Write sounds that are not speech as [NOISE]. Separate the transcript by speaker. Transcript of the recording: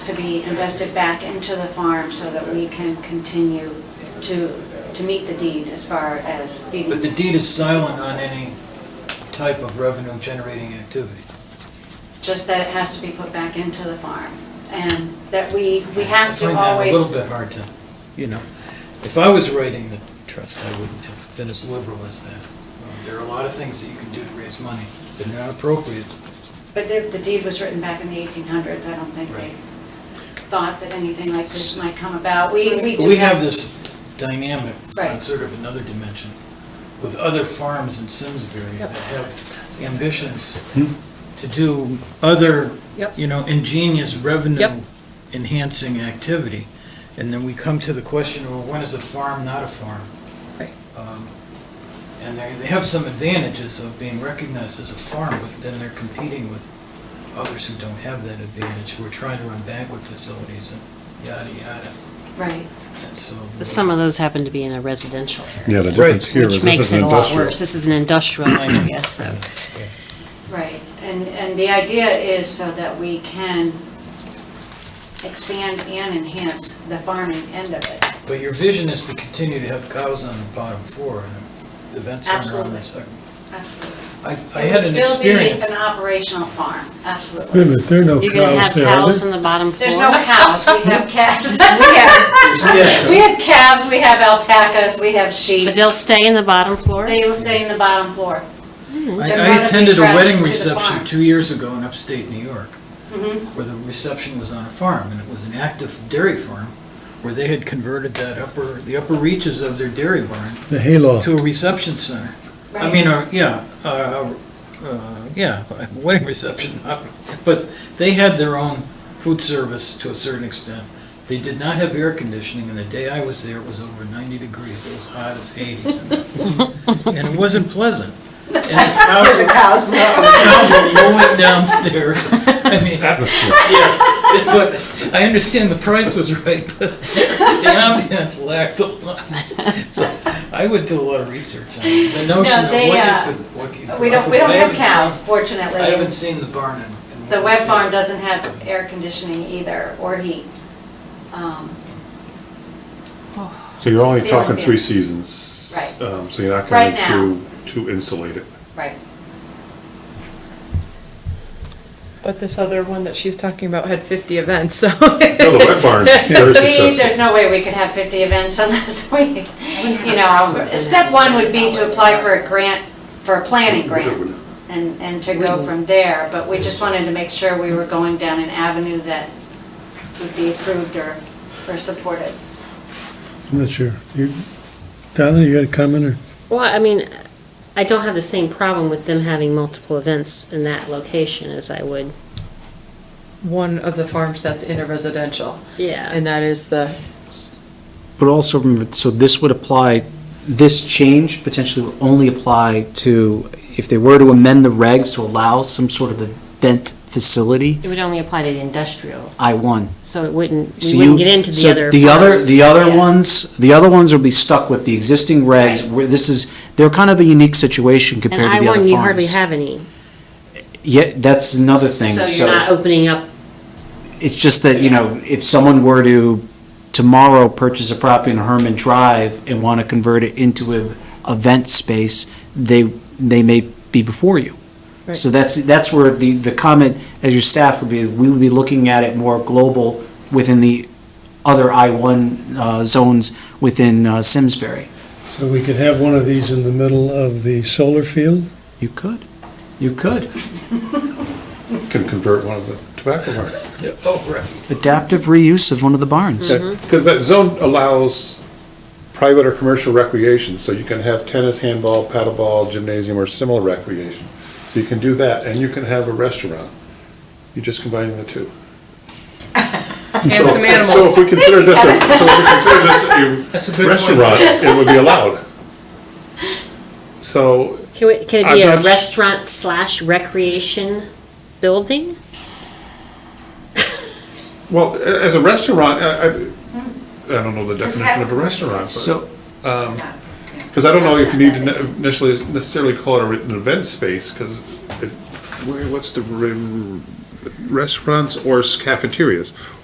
Speaker 1: to be invested back into the farm so that we can continue to, to meet the deed as far as feeding.
Speaker 2: But the deed is silent on any type of revenue generating activity.
Speaker 1: just that it has to be put back into the farm, and that we, we have to
Speaker 2: I find that a little
Speaker 1: always,
Speaker 2: bit hard to, you know, if I was writing the trust, I wouldn't have been as liberal as that. Um, There are a lot of things that you can do to raise money that are not appropriate.
Speaker 1: but the the deed was written back in the 1800s, I don't think they
Speaker 2: Right.
Speaker 1: thought that anything like this might come about. We, we
Speaker 2: But
Speaker 1: do.
Speaker 2: we have this dynamic on
Speaker 1: Right.
Speaker 2: sort of another dimension with other farms in Simsbury that have ambitions to do other,
Speaker 3: Yep.
Speaker 2: you know, ingenious revenue
Speaker 3: Yep.
Speaker 2: enhancing activity. And then we come to the question, well, when is a farm not a farm?
Speaker 3: Right.
Speaker 2: Um, And they, they have some advantages of being recognized as a farm, but then they're competing with others who don't have that advantage, who are trying to run banquet facilities and yada, yada.
Speaker 1: Right,
Speaker 2: And so.
Speaker 4: But Some of those happen to be in a residential area.
Speaker 5: Yeah, the difference
Speaker 2: Right.
Speaker 5: here is
Speaker 4: Which
Speaker 5: this
Speaker 4: makes
Speaker 5: is
Speaker 4: it
Speaker 5: an
Speaker 4: a lot
Speaker 5: industrial.
Speaker 4: worse. This is an industrial, I guess, so.
Speaker 1: right, and, and the idea is so that we can expand and enhance the farming end of it.
Speaker 2: But your vision is to continue to have cows on the bottom floor and an event center on the
Speaker 1: Absolutely.
Speaker 2: second.
Speaker 1: Absolutely.
Speaker 2: I, I had
Speaker 1: It
Speaker 2: an
Speaker 1: would
Speaker 2: experience.
Speaker 1: still be an operational farm,
Speaker 6: Wait a
Speaker 1: absolutely.
Speaker 6: minute, there are no
Speaker 4: You're gonna have
Speaker 6: cows there, are
Speaker 4: cows
Speaker 6: there?
Speaker 4: on the bottom floor.
Speaker 1: There's no cows, we have calves. [LAUGHS] We
Speaker 2: Yes.
Speaker 1: have calves, we have alpacas, we have sheep.
Speaker 4: But [LAUGHS] they'll stay in the bottom floor? [LAUGHS]
Speaker 1: They will stay in the bottom floor.
Speaker 2: I,
Speaker 1: They're
Speaker 2: I
Speaker 1: gonna
Speaker 2: attended a
Speaker 1: be
Speaker 2: wedding
Speaker 1: dressed to the
Speaker 2: reception
Speaker 1: farm.
Speaker 2: two years ago in upstate New York,
Speaker 1: Mhm.
Speaker 2: where the reception was on a farm, and it was an active dairy farm, where they had converted that upper, the upper reaches of their dairy barn
Speaker 6: The hayloft.
Speaker 2: to a reception center. I mean, uh, yeah, uh, uh, yeah, [LAUGHS] wedding reception, [LAUGHS] uh, but they had their own food service to a certain extent. They did not have air conditioning, and the day I was there, it was over 90 degrees, it was hot as Hades. in there. And it wasn't pleasant. And the cows were- cows were lowing downstairs. I mean, yeah, but I understand the price was right, but the ambiance lacked a lot. So I would do a lot of research on it. the notion of
Speaker 1: they, uh,
Speaker 2: what you could, what you could.
Speaker 1: We don't, we don't
Speaker 2: I
Speaker 1: have
Speaker 2: haven't seen-
Speaker 1: cows, fortunately.
Speaker 2: I haven't seen the barn in. in
Speaker 1: The web
Speaker 2: Weatherfield.
Speaker 1: farm doesn't have air conditioning either, or heat. Um,
Speaker 5: So you're only talking
Speaker 1: Ceiling
Speaker 5: three
Speaker 1: fan.
Speaker 5: seasons.
Speaker 1: Right.
Speaker 5: Um, so you're not
Speaker 1: Right
Speaker 5: going
Speaker 1: now.
Speaker 5: to, to insulate it.
Speaker 1: Right.
Speaker 3: But this other one that she's talking about had 50 events, so.
Speaker 5: No, the
Speaker 4: [LAUGHS]
Speaker 5: wet barn's very
Speaker 1: We, there's
Speaker 5: successful.
Speaker 1: no way we could have 50 events [LAUGHS] unless we, you know, step one would be to apply for a grant, for a planning grant, and, and to go from there, but we just wanted to make sure we were going down an avenue that would be approved or, or supported.
Speaker 6: I'm not sure. You- Donna, you had a comment or?
Speaker 4: Well, I mean, I don't have the same problem with them having multiple events in that location as I would,
Speaker 3: [LAUGHS] One of the farms that's in a residential,
Speaker 4: yeah.
Speaker 3: and that is the,
Speaker 7: But also, remember, so this would apply, this change potentially would only apply to, if they were to amend the regs to allow some sort of event facility,
Speaker 4: It would only apply to the industrial,
Speaker 7: I-1.
Speaker 4: so it wouldn't,
Speaker 7: So
Speaker 4: we
Speaker 7: you
Speaker 4: wouldn't get into the
Speaker 7: so
Speaker 4: other.
Speaker 7: The other,
Speaker 4: farms.
Speaker 7: the other
Speaker 4: Yeah.
Speaker 7: ones, the other ones will be stuck with the existing regs,
Speaker 4: Right.
Speaker 7: where this is, they're kind of a unique situation
Speaker 4: And
Speaker 7: compared to the other farms.
Speaker 4: I-1, you hardly have any.
Speaker 7: Yeah, that's another thing, so.
Speaker 4: So you're not opening up
Speaker 7: It's just that, you know, if someone were to tomorrow purchase a property in Herman Drive and want to convert it into an event space, they, they may be before you.
Speaker 3: Right.
Speaker 7: So that's, that's where the, the comment as your staff would be, we would be looking at it more global within the other I-1 uh, zones within uh, Simsbury.
Speaker 6: So we could have one of these in the middle of the solar field?
Speaker 7: You could, you could.
Speaker 5: Can convert one of the tobacco barns.
Speaker 2: Oh, right.
Speaker 7: Adaptive reuse of one of the barns.
Speaker 3: Mm-hmm.
Speaker 5: Because that zone allows private or commercial recreation, so you can have tennis, handball, paddleball, gymnasium, or similar recreation. So you can do that, and you can have a restaurant. You're just combining the two.
Speaker 3: and
Speaker 5: So-
Speaker 3: some
Speaker 5: So if
Speaker 3: animals.
Speaker 5: we consider this, a- so if we consider this a
Speaker 2: That's a good point.
Speaker 5: restaurant, it would be allowed. So,
Speaker 4: Can we- can it
Speaker 5: I'm
Speaker 4: be a
Speaker 5: not s-
Speaker 4: restaurant slash recreation building?
Speaker 5: well, a- as a restaurant, I, I, I don't know the definition of a restaurant,
Speaker 7: So,
Speaker 5: because Um, I don't know if you need to ne- initially necessarily call it a re- an event space, because it, where- what's the, re- restaurants or cafeterias?